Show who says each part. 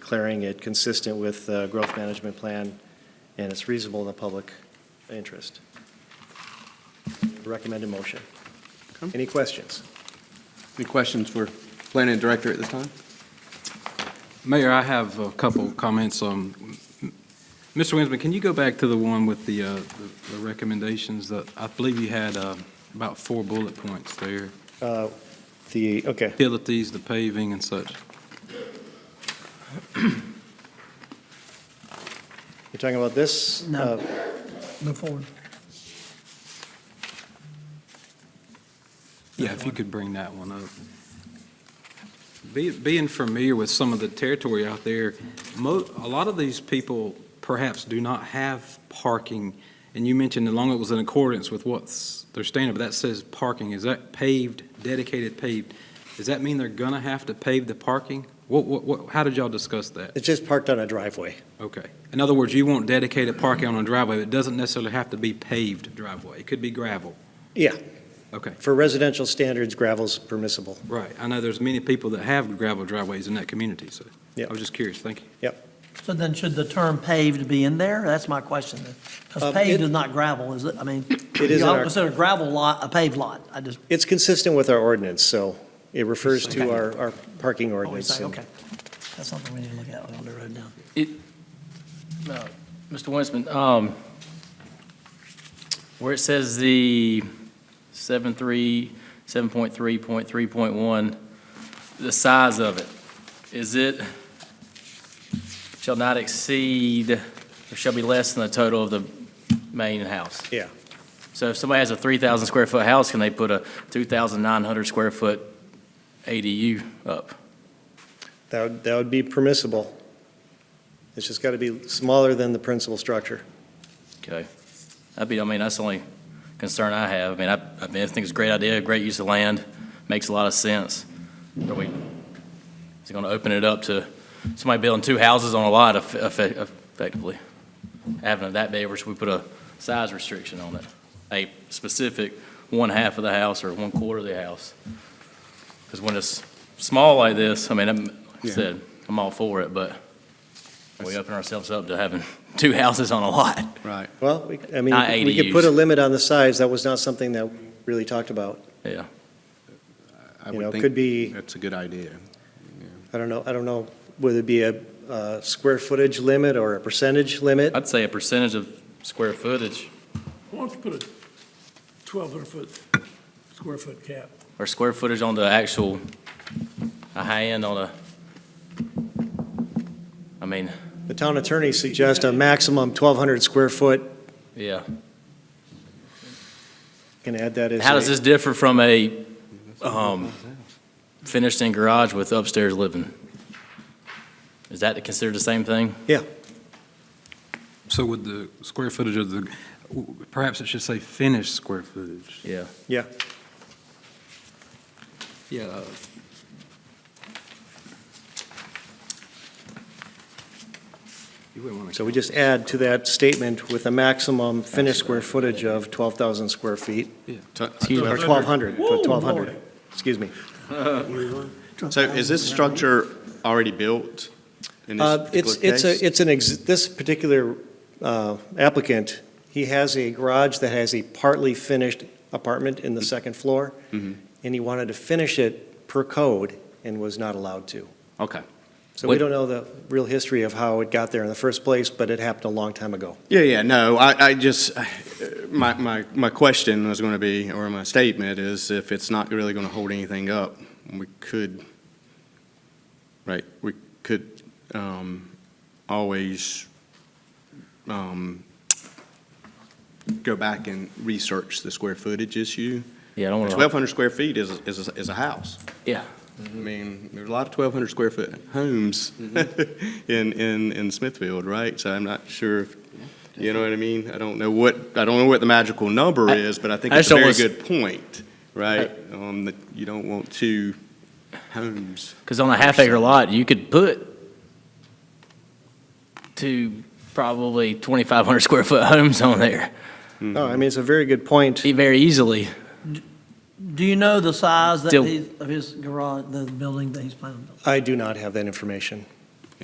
Speaker 1: declaring it consistent with the growth management plan, and it's reasonable in the public interest. Recommended motion.
Speaker 2: Okay.
Speaker 1: Any questions?
Speaker 2: Any questions for planning director at this time?
Speaker 3: Mayor, I have a couple comments. Um, m- Mr. Winsman, can you go back to the one with the, uh, the- the recommendations that, I believe you had uh, about four bullet points there.
Speaker 1: Uh, The, okay,
Speaker 3: Utilities, the paving and such.
Speaker 1: you're talking about this?
Speaker 4: No.
Speaker 1: Uh,
Speaker 4: Go forward.
Speaker 3: Yeah, if you could bring that one up. Be- Being familiar with some of the territory out there, mo, a lot of these people perhaps do not have parking. And you mentioned as long as it was in accordance with what's their standard, but that says parking. Is that paved, dedicated paved? Does that mean they're gonna have to pave the parking? What, what, what, how did y'all discuss that?
Speaker 1: It's just parked on a driveway.
Speaker 3: Okay. In other words, you want dedicated parking on a driveway, but it doesn't necessarily have to be paved driveway. It could be gravel.
Speaker 1: Yeah,
Speaker 3: Okay.
Speaker 1: for residential standards, gravel's permissible.
Speaker 3: Right, I know there's many people that have gravel driveways in that community, so
Speaker 1: Yeah.
Speaker 3: I was just curious, thank you.
Speaker 4: So then should the term paved be in there? That's my question then.
Speaker 1: Um,
Speaker 4: Because paved
Speaker 1: it-
Speaker 4: is not gravel, is it? I mean,
Speaker 1: It is in
Speaker 4: y'all
Speaker 1: our-
Speaker 4: consider gravel lot a paved lot. I just,
Speaker 1: It's consistent with our ordinance, so it refers to our, our parking
Speaker 4: always
Speaker 1: ordinance.
Speaker 4: say,
Speaker 1: and-
Speaker 4: okay. That's something we need to look at on the road down.
Speaker 5: Uh, Mr. Winston, um, where it says the 7.3, 7.3.3.1, the size of it, is it, shall not exceed, or shall be less than the total of the main house?
Speaker 1: Yeah.
Speaker 5: So if somebody has a 3,000 square foot house, can they put a 2,900 square foot ADU up?
Speaker 1: That, would- that would be permissible. It's just got to be smaller than the principal structure.
Speaker 5: Okay. That'd be, I mean, that's the only concern I have. I mean, I, I mean, I think it's a great idea, great use of land, makes a lot of sense. Are we, is it gonna open it up to somebody building two houses on a lot eff- eff- effectively? Having it that big, or should we put a size restriction on it? A specific one half of the house or one quarter of the house? Because when it's small like this, I mean, I'm, like I
Speaker 2: Yeah.
Speaker 5: said, I'm all for it, but we open ourselves up to having two houses on a lot.
Speaker 2: Right.
Speaker 1: Well, we- I mean,
Speaker 5: Not
Speaker 1: we could put a
Speaker 5: ADUs.
Speaker 1: limit on the size. That was not something that we really talked about.
Speaker 5: Yeah.
Speaker 2: I
Speaker 1: You
Speaker 2: would
Speaker 1: know,
Speaker 2: think
Speaker 1: could be-
Speaker 2: That's a good idea.
Speaker 1: I don't know, I don't know whether it be a, uh square footage limit or a percentage limit.
Speaker 5: I'd say a percentage of square footage
Speaker 6: Why don't you put a twelve hundred foot, square foot cap?
Speaker 5: or square footage on the actual, a high end on a, I mean,
Speaker 1: The town attorney suggests a maximum 1,200 square foot.
Speaker 5: yeah.
Speaker 1: Can add that as.
Speaker 5: How does
Speaker 1: a-
Speaker 5: this differ from a um, finished in garage with upstairs living? Is that considered the same thing?
Speaker 3: So would the square footage of the, perhaps it should say finished square footage?
Speaker 5: Yeah.
Speaker 1: Yeah,
Speaker 3: Yeah. You wouldn't want to,
Speaker 1: so we just add to that statement with a maximum finished square footage of 12,000 square feet, or 1,200, but 1,200, excuse me.
Speaker 7: So is this structure already built in
Speaker 1: Uh,
Speaker 7: this
Speaker 1: It's,
Speaker 7: particular
Speaker 1: it's
Speaker 7: case?
Speaker 1: a, it's an, ex- this particular uh, applicant, he has a garage that has a partly finished apartment in
Speaker 7: Mm-hmm.
Speaker 1: the second floor,
Speaker 7: Mhm.
Speaker 1: and he wanted to finish it per code and was not allowed to.
Speaker 7: Okay.
Speaker 1: So we
Speaker 5: What-
Speaker 1: don't know the real history of how it got there in the first place, but it happened a long time ago.
Speaker 7: Yeah, yeah, no, I, I just, uh, my, my, my question was going to be, or my statement is if it's not really going to hold anything up, we could, right, we could um, always um, go back and research the square footage issue.
Speaker 5: Yeah, I don't want to,
Speaker 7: 1,200 square feet is, is, is a house.
Speaker 5: yeah.
Speaker 7: I mean, there's a lot of 1,200 square foot homes
Speaker 5: Mm-hmm.
Speaker 7: in, in, in Smithfield, right? So I'm not sure, if you know what I mean? I don't know what, I don't know what the magical number
Speaker 5: I-
Speaker 7: is, but I think
Speaker 5: I
Speaker 7: it's a
Speaker 5: just
Speaker 7: very good
Speaker 5: don't
Speaker 7: point, right? Um, that you don't want two homes.
Speaker 5: Because on a half acre lot, you could put two, probably 2,500 square foot homes on there
Speaker 1: No, I mean, it's a very good point.
Speaker 5: very easily.
Speaker 4: Do you know the size that
Speaker 5: Still-
Speaker 4: he- of his garage, the building that he's planning? on building?
Speaker 1: I do not have that information.